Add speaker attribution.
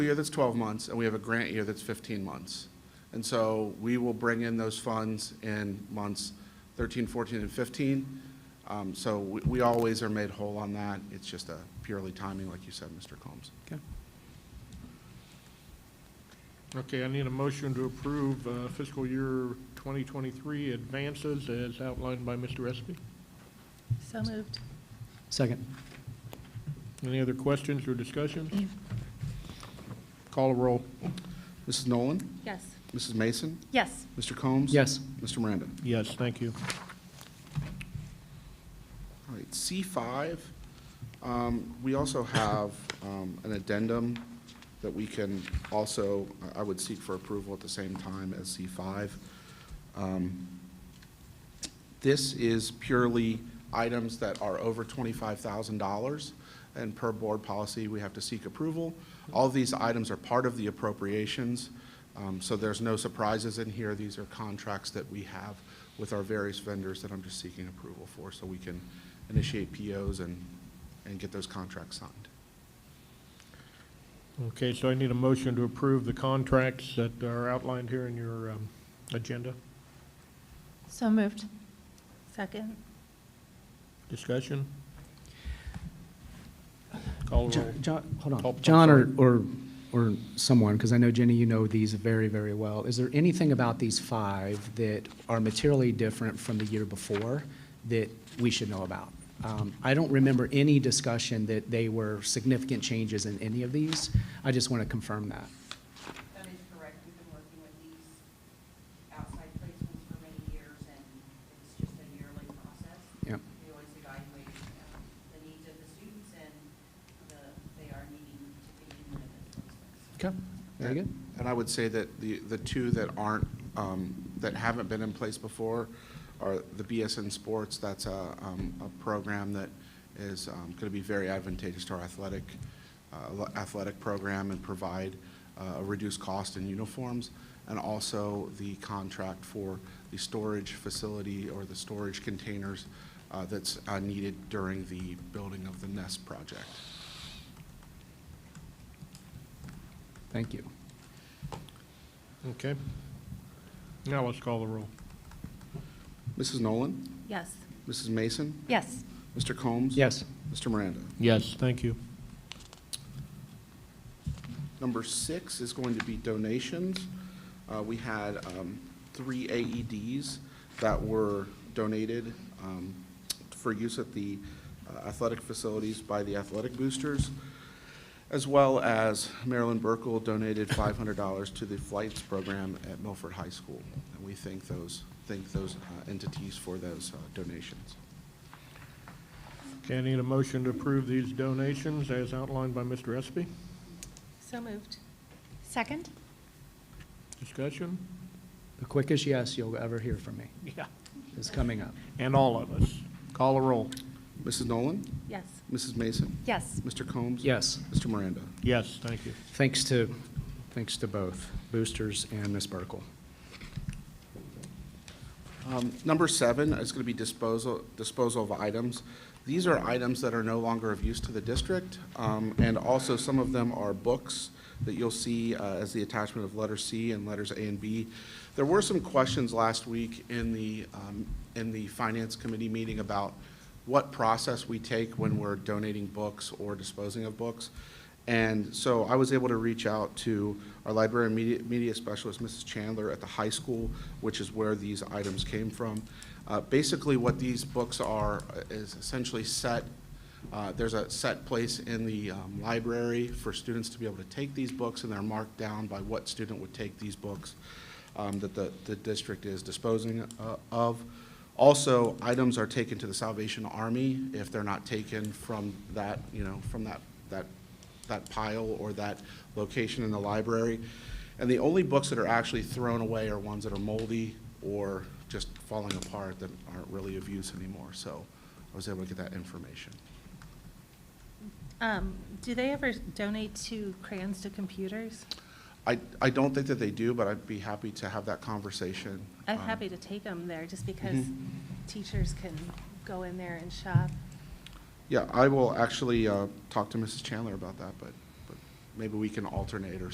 Speaker 1: year that's 12 months, and we have a grant year that's 15 months. And so we will bring in those funds in months 13, 14, and 15. Um, So we we always are made whole on that. It's just a purely timing, like you said, Mr. Combs. Okay.
Speaker 2: Okay, I need a motion to approve uh, fiscal year 2023 advances as outlined by Mr. Espy.
Speaker 3: So moved.
Speaker 4: Second.
Speaker 2: Any other questions or discussion? Call a roll.
Speaker 1: Mrs. Nolan?
Speaker 3: Yes.
Speaker 1: Mrs. Mason?
Speaker 3: Yes.
Speaker 1: Mr. Combs?
Speaker 4: Yes.
Speaker 1: Mr. Miranda?
Speaker 2: Yes, thank you.
Speaker 1: All right, C5, um, we also have um, an addendum that we can also, I- I would seek for approval at the same time as C5. Um, This is purely items that are over $25,000, and per board policy, we have to seek approval. All these items are part of the appropriations, um, so there's no surprises in here. These are contracts that we have with our various vendors that I'm just seeking approval for, so we can initiate POs and, and get those contracts signed.
Speaker 2: Okay, so I need a motion to approve the contracts that are outlined here in your um, agenda.
Speaker 3: So moved. Second.
Speaker 2: Discussion? Call a roll.
Speaker 4: John, hold
Speaker 2: Oh, I'm
Speaker 4: on. John or,
Speaker 2: sorry.
Speaker 4: or, or someone, because I know Jenny, you know these very, very well. Is there anything about these five that are materially different from the year before that we should know about? Um, I don't remember any discussion that they were significant changes in any of these. I just want to confirm that.
Speaker 5: That is correct. We've been working with these outside placements for many years, and it's just a yearly process.
Speaker 4: Yep.
Speaker 5: We always evaluate um, the needs of the students and the, they are needing to be in one of those placements.
Speaker 4: Okay, very good.
Speaker 1: And I would say that the, the two that aren't, um, that haven't been in place before are the BSN Sports. That's a, um, a program that is going to be very advantageous to our athletic, uh, athletic program and provide uh, a reduced cost in uniforms. And also the contract for the storage facility or the storage containers uh, that's uh, needed during the building of the Nest project.
Speaker 4: Thank you.
Speaker 2: Okay. Now let's call the roll.
Speaker 1: Mrs. Nolan?
Speaker 3: Yes.
Speaker 1: Mrs. Mason?
Speaker 3: Yes.
Speaker 1: Mr. Combs?
Speaker 4: Yes.
Speaker 1: Mr. Miranda.
Speaker 2: Yes, thank you.
Speaker 1: Number six is going to be donations. Uh, We had um, three AEDs that were donated um, for use at the uh, athletic facilities by the athletic boosters, as well as Marilyn Burkle donated $500 to the flights program at Milford High School. And we thank those, thank those uh, entities for those uh, donations.
Speaker 2: Okay, I need a motion to approve these donations as outlined by Mr. Espy.
Speaker 3: So moved. Second.
Speaker 2: Discussion?
Speaker 4: The quickest yes you'll ever hear from me
Speaker 2: Yeah.
Speaker 4: is coming up.
Speaker 2: And all of us. Call a roll.
Speaker 1: Mrs. Nolan?
Speaker 3: Yes.
Speaker 1: Mrs. Mason?
Speaker 3: Yes.
Speaker 1: Mr. Combs?
Speaker 4: Yes.
Speaker 1: Mr. Miranda.
Speaker 2: Yes, thank you.
Speaker 4: Thanks to, thanks to both Boosters and Ms. Burkle.
Speaker 1: Um, Number seven is going to be disposal, disposal of items. These are items that are no longer of use to the district, um, and also some of them are books that you'll see uh, as the attachment of letter C and letters A and B. There were some questions last week in the, um, in the Finance Committee meeting about what process we take when we're donating books or disposing of books. And so I was able to reach out to our library and media, media specialist, Mrs. Chandler, at the high school, which is where these items came from. Uh, basically, what these books are uh, is essentially set, uh, there's a set place in the um, library for students to be able to take these books, and they're marked down by what student would take these books um, that the, the district is disposing uh, of. Also, items are taken to the Salvation Army if they're not taken from that, you know, from that, that that pile or that location in the library. And the only books that are actually thrown away are ones that are moldy or just falling apart that aren't really of use anymore. So I was able to get that information.
Speaker 3: Um, do they ever donate to crayons to computers?
Speaker 1: I, I don't think that they do, but I'd be happy to have that conversation.
Speaker 3: I'm
Speaker 1: um,
Speaker 3: happy to take them there just because teachers can go in there and shop.
Speaker 1: Yeah, I will actually uh, talk to Mrs. Chandler about that, but, but maybe we can alternate or